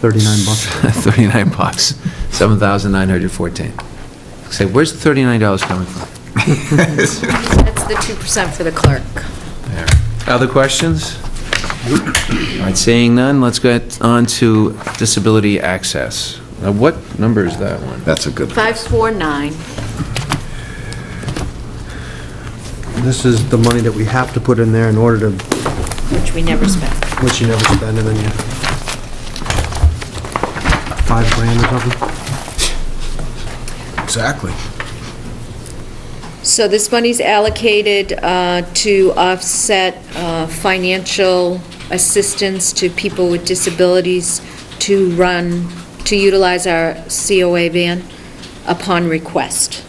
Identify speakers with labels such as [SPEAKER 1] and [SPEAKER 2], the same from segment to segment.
[SPEAKER 1] 39 bucks.
[SPEAKER 2] 39 bucks, 7,914. Say, where's the $39 coming from?
[SPEAKER 3] That's the 2% for the clerk.
[SPEAKER 2] There. Other questions? All right, seeing none, let's get on to disability access. Now, what number is that one?
[SPEAKER 4] That's a good,
[SPEAKER 3] 549,
[SPEAKER 1] This is the money that we have to put in there in order to,
[SPEAKER 3] which we never spent.
[SPEAKER 1] which you never spend, and then you, five grand or something?
[SPEAKER 4] exactly.
[SPEAKER 3] So this money's allocated uh, to offset uh, financial assistance to people with disabilities to run, to utilize our COA van upon request.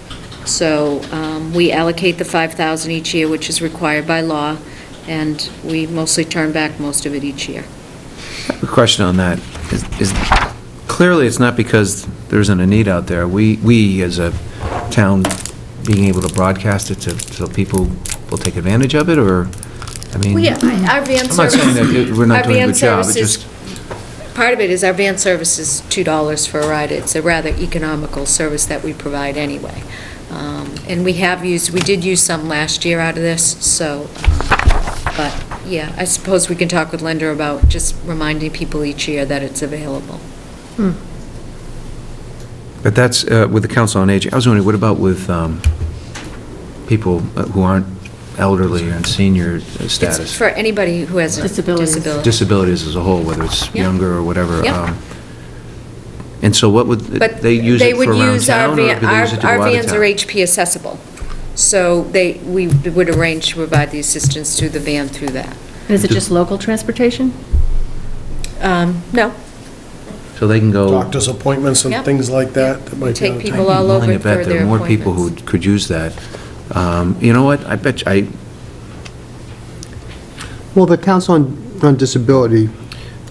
[SPEAKER 3] So um, we allocate the 5,000 each year, which is required by law, and we mostly turn back most of it each year.
[SPEAKER 2] A question on that. Is- Is, clearly, it's not because there isn't a need out there. We, we as a town, being able to broadcast it to, so people will take advantage of it, or, I mean...
[SPEAKER 3] Well, yeah, I- our van
[SPEAKER 2] I'm not
[SPEAKER 3] service...
[SPEAKER 2] saying that it- we're not
[SPEAKER 3] our
[SPEAKER 2] doing a
[SPEAKER 3] van
[SPEAKER 2] good job, it's
[SPEAKER 3] services-
[SPEAKER 2] just,
[SPEAKER 3] Part of it is our van service is $2 for a ride. It's a rather economical service that we provide anyway. Um, And we have used, we did use some last year out of this, so, uh, but, yeah, I suppose we can talk with Linda about just reminding people each year that it's available.
[SPEAKER 2] but that's, uh, with the Council on Aging, I was wondering, what about with um, people uh, who aren't elderly and senior
[SPEAKER 3] It's
[SPEAKER 2] status?
[SPEAKER 3] for anybody who has a
[SPEAKER 5] Disabilities.
[SPEAKER 3] disability.
[SPEAKER 2] Disabilities as a whole, whether it's
[SPEAKER 3] Yeah.
[SPEAKER 2] younger or whatever.
[SPEAKER 3] Yeah.
[SPEAKER 2] um, And so what would,
[SPEAKER 3] But
[SPEAKER 2] they use it for
[SPEAKER 3] would
[SPEAKER 2] around
[SPEAKER 3] use our
[SPEAKER 2] town, or do they
[SPEAKER 3] van.
[SPEAKER 2] use it to
[SPEAKER 3] Our
[SPEAKER 2] go
[SPEAKER 3] our
[SPEAKER 2] out of
[SPEAKER 3] vans
[SPEAKER 2] town?
[SPEAKER 3] are HP accessible, so they, we would arrange to provide the assistance through the van through that.
[SPEAKER 5] Is it just local transportation?
[SPEAKER 3] Um, No,
[SPEAKER 2] So they can go.
[SPEAKER 6] doctor's appointments and
[SPEAKER 3] Yep.
[SPEAKER 6] things like that. that might be
[SPEAKER 3] Take
[SPEAKER 6] on
[SPEAKER 3] people
[SPEAKER 6] time.
[SPEAKER 3] all
[SPEAKER 2] I'm willing
[SPEAKER 3] over
[SPEAKER 2] to bet
[SPEAKER 3] for
[SPEAKER 2] there are
[SPEAKER 3] their
[SPEAKER 2] more people who
[SPEAKER 3] appointments.
[SPEAKER 2] could use that. Um, You know what? I bet, you- I,
[SPEAKER 1] Well, the Council on on Disability,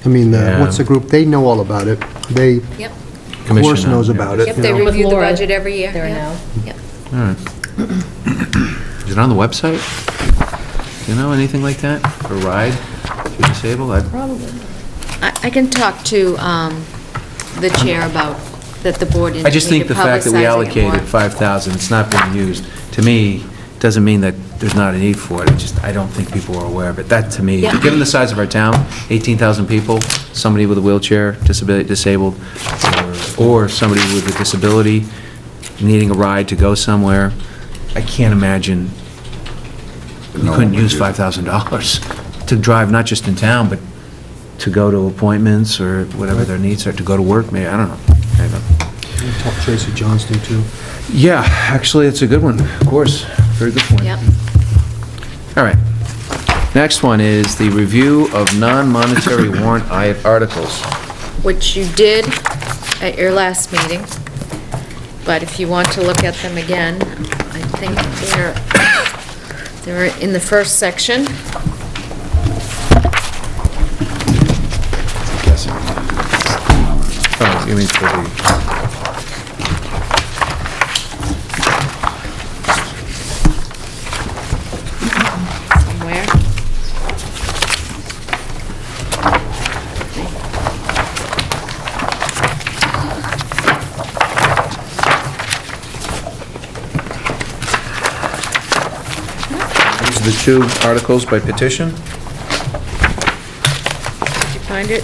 [SPEAKER 1] I mean, the-
[SPEAKER 2] Yeah.
[SPEAKER 1] what's the group, they know all about it. They, of
[SPEAKER 3] yep.
[SPEAKER 1] course,
[SPEAKER 2] Commission on-
[SPEAKER 1] knows about it.
[SPEAKER 3] Yep,
[SPEAKER 1] you
[SPEAKER 3] they
[SPEAKER 1] know.
[SPEAKER 5] With
[SPEAKER 3] review the
[SPEAKER 5] Laura
[SPEAKER 3] budget every year.
[SPEAKER 5] there
[SPEAKER 3] yeah,
[SPEAKER 5] now.
[SPEAKER 3] yeah.
[SPEAKER 2] all right. Is it on the website? You know, anything like that? A ride if you're disabled? I-
[SPEAKER 5] Probably.
[SPEAKER 3] I I can talk to um, the chair about that the board indicated
[SPEAKER 2] I just think the fact that
[SPEAKER 3] publicizing
[SPEAKER 2] we
[SPEAKER 3] it
[SPEAKER 2] allocated
[SPEAKER 3] more.
[SPEAKER 2] 5,000, it's not being used, to me, doesn't mean that there's not a need for it. It's just, I don't think people are aware of it. That, to me,
[SPEAKER 3] Yeah.
[SPEAKER 2] given the size of our town, 18,000 people, somebody with a wheelchair, disability, disabled, or- or somebody with a disability needing a ride to go somewhere, I can't imagine you
[SPEAKER 4] No
[SPEAKER 2] couldn't
[SPEAKER 4] one would
[SPEAKER 2] use
[SPEAKER 4] do that.
[SPEAKER 2] $5,000 to drive, not just in town, but to go to appointments or whatever their needs are, to go to work, maybe, I don't know. I don't know.
[SPEAKER 1] We talked Tracy Johnston, too.
[SPEAKER 2] Yeah, actually, it's a good one, of course. Very good point.
[SPEAKER 3] Yep.
[SPEAKER 2] All right. Next one is the review of non-monetary warrant i- articles.
[SPEAKER 3] Which you did at your last meeting, but if you want to look at them again, I think they're, they're in the first section.
[SPEAKER 2] Oh, you mean for the,
[SPEAKER 3] somewhere.
[SPEAKER 2] these are the two articles by petition?
[SPEAKER 3] Did you find it?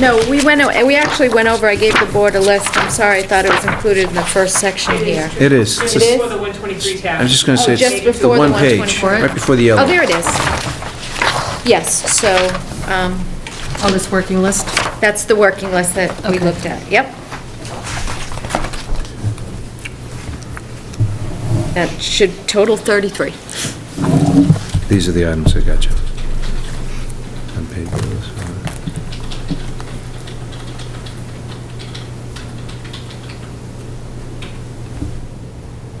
[SPEAKER 3] No, we went, o- we actually went over, I gave the board a list, I'm sorry, I thought it was included in the first section here.
[SPEAKER 2] It is.
[SPEAKER 3] It is?
[SPEAKER 7] For the 123 tab.
[SPEAKER 2] I was just going to
[SPEAKER 3] Oh,
[SPEAKER 2] say,
[SPEAKER 3] just
[SPEAKER 2] it's
[SPEAKER 3] before the
[SPEAKER 2] one page,
[SPEAKER 3] 124.
[SPEAKER 2] right before the yellow.
[SPEAKER 3] Oh, there it is. Yes, so um,
[SPEAKER 5] On this working list?
[SPEAKER 3] that's the working list that we
[SPEAKER 5] Okay.
[SPEAKER 3] looked at, yep. That should total 33.
[SPEAKER 2] These are the items I got you. Unpaid bills.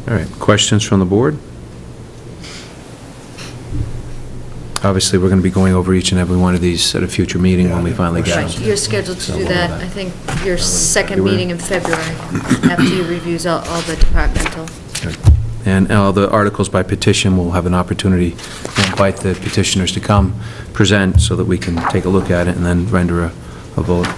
[SPEAKER 2] All right, questions from the board? Obviously, we're going to be going over each and every one of these at a future meeting when we finally get
[SPEAKER 3] Right,
[SPEAKER 2] them.
[SPEAKER 3] you're scheduled to do that, I think, your second
[SPEAKER 2] February.
[SPEAKER 3] meeting in February, after you reviews all all the departmental.
[SPEAKER 2] And all the articles by petition, we'll have an opportunity to invite the petitioners to come present so that we can take a look at it and then render a a vote.